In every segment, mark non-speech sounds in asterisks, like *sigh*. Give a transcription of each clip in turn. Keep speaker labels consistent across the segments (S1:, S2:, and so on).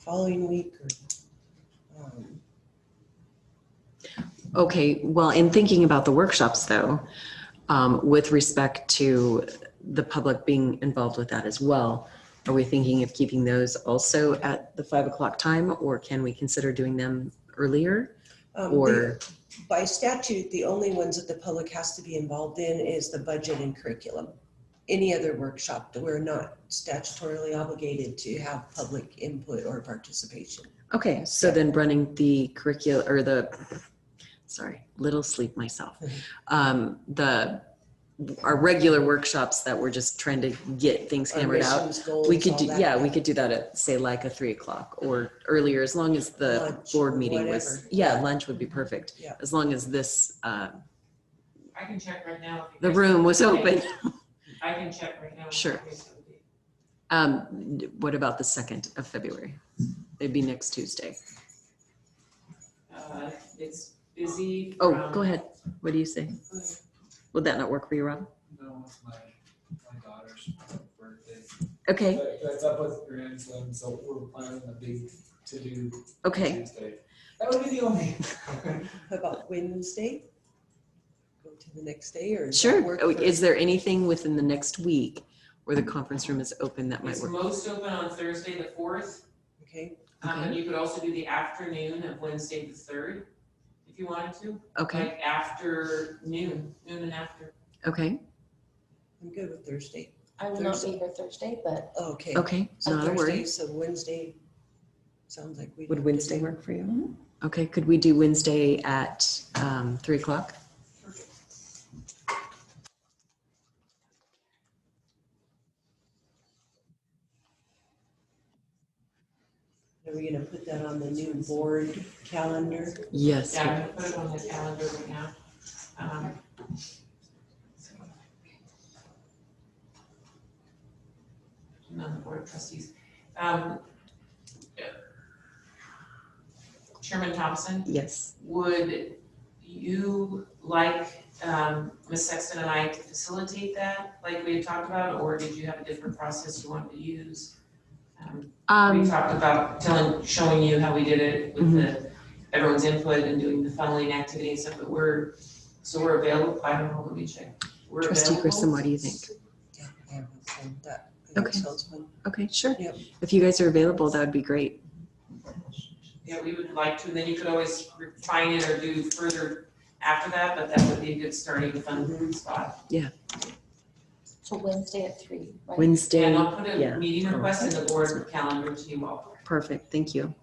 S1: following week or, um,
S2: Okay, well, in thinking about the workshops though, um, with respect to the public being involved with that as well, are we thinking of keeping those also at the five o'clock time or can we consider doing them earlier?
S1: um, the-
S2: Or,
S1: By statute, the only ones that the public has to be involved in is the budget and curriculum. Any other workshop that we're not statutorily obligated to have public input or participation.
S2: okay, so then running the curriculum or the, sorry, little sleep myself. Um, the, our regular workshops that we're just trying to get things
S1: Our
S2: hammered out.
S1: missions, goals,
S2: We could
S1: all
S2: do,
S1: that.
S2: yeah, we could do that at, say, like a three o'clock or earlier, as long as the
S1: Lunch or
S2: board meeting was,
S1: whatever.
S2: yeah, lunch would be perfect.
S1: Yeah.
S2: As long as this, uh,
S3: I can check right now. if you
S2: the
S3: guys-
S2: room was open.
S3: I can check right now. if
S2: Sure.
S3: you guys have the-
S2: Um, what about the second of February? It'd be next Tuesday.
S3: uh, It's busy.
S2: Oh,
S3: from-
S2: go ahead. What do you say?
S3: Go ahead.
S2: Would that not work for you, Rob?
S4: No, it's my, my daughter's birthday.
S2: Okay,
S4: But That's up with grandson, so we're planning a big to-do
S2: okay.
S4: Tuesday. That would be the
S2: *laughs*
S4: only.
S1: How about Wednesday? Go to the next day or? does that
S2: Sure.
S1: work
S2: Oh,
S1: for-
S2: Is there anything within the next week where the conference room is open that might
S3: It's
S2: work?
S3: most open on Thursday, the fourth,
S1: Okay,
S3: um, and
S2: Okay.
S3: you could also do the afternoon of Wednesday, the third, if you wanted to.
S2: Okay,
S3: Like after noon, noon and after.
S2: okay,
S1: I'm good with Thursday.
S5: I will not be
S1: Thursday.
S5: here Thursday, but
S1: Okay.
S2: okay.
S1: So
S2: Not a
S1: Thursday,
S2: worry.
S1: So Wednesday, sounds like we.
S2: Would Wednesday work for you? Okay, could we do Wednesday at um, three o'clock?
S1: Are we gonna put that on the new board calendar?
S2: Yes.
S3: Yeah, I'm gonna put it on the calendar right now. Um, I'm on the board of trustees. Um, Chairman Thompson?
S2: Yes.
S3: Would you like um, Ms. Sexton and I to facilitate that, like we had talked about, or did you have a different process you wanted to use? Um, We
S2: Um, Mm-hmm.
S3: talked about telling, showing you how we did it with the, everyone's input and doing the funneling activity and stuff, but we're, so we're available, I don't know, let me check. We're
S2: Trustee Grissom,
S3: available?
S2: what do you think?
S1: Yeah, I have a phone that, I think
S2: Okay.
S1: sounds fun.
S2: Okay, sure.
S1: Yep.
S2: If you guys are available, that would be great.
S3: Yeah, we would like to, and then you could always refine it or do further after that, but that would be a good starting
S2: Mm-hmm.
S3: fun spot.
S5: so Wednesday at three, right?
S3: And
S2: Wednesday,
S3: I'll put
S2: yeah. Oh,
S3: a meeting request in the board calendar to you all.
S2: perfect, thank you.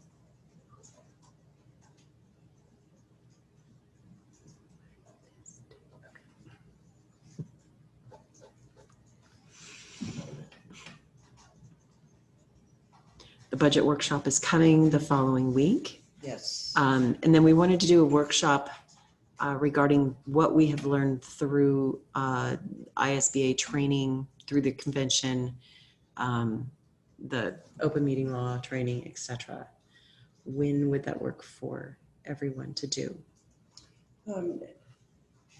S2: The budget workshop is coming the following week.
S1: Yes.
S2: Um, and then we wanted to do a workshop uh, regarding what we have learned through uh, ISBA training, through the convention, um, the open meeting law training, et cetera. When would that work for everyone to do?
S1: Um,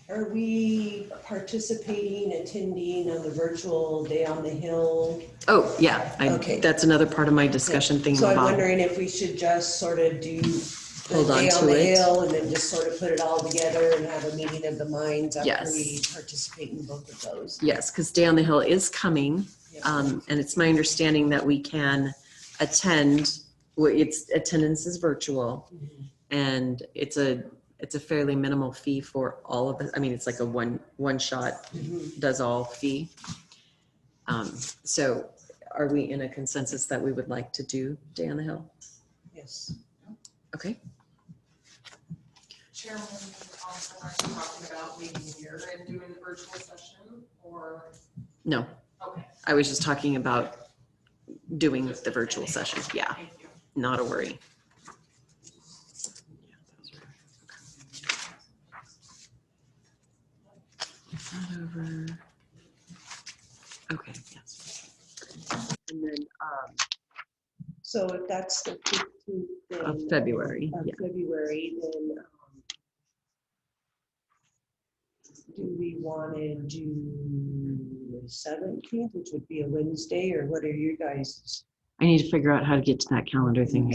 S1: Are we participating, attending on the virtual Day on the Hill?
S2: Oh, yeah, I,
S1: Okay.
S2: that's another part of my discussion thing
S1: So I'm
S2: about,
S1: wondering if we should just sort of do the
S2: Hold on
S1: Day
S2: to
S1: on the
S2: it.
S1: Hill and then just sort of put it all together and have a meeting of the minds after
S2: Yes.
S1: we participate in both of those.
S2: yes, because Day on the Hill is coming.
S1: Yep.
S2: Um, and it's my understanding that we can attend, well, it's, attendance is virtual.
S1: Mhm.
S2: and it's a it's a fairly minimal fee for all of us. I mean, it's like a one one shot
S1: Mhm.
S2: does all fee. Um, so, are we in a consensus that we would like to do Day on the Hill?
S1: Yes.
S2: Okay.
S6: Chairman, also are you talking about meeting here and doing the virtual session or?
S2: No,
S6: Okay,
S2: I was just talking about doing the virtual session. Yeah,
S6: thank you.
S2: not a worry. Not over. Okay. Yes. And then. Um,
S1: So if that's the fifteenth, then.
S2: of February,
S1: of
S2: yeah.
S1: February, then um, do we want to do the seventeenth, which would be a Wednesday, or what are your guys'
S2: I need to figure out how to get to that calendar thing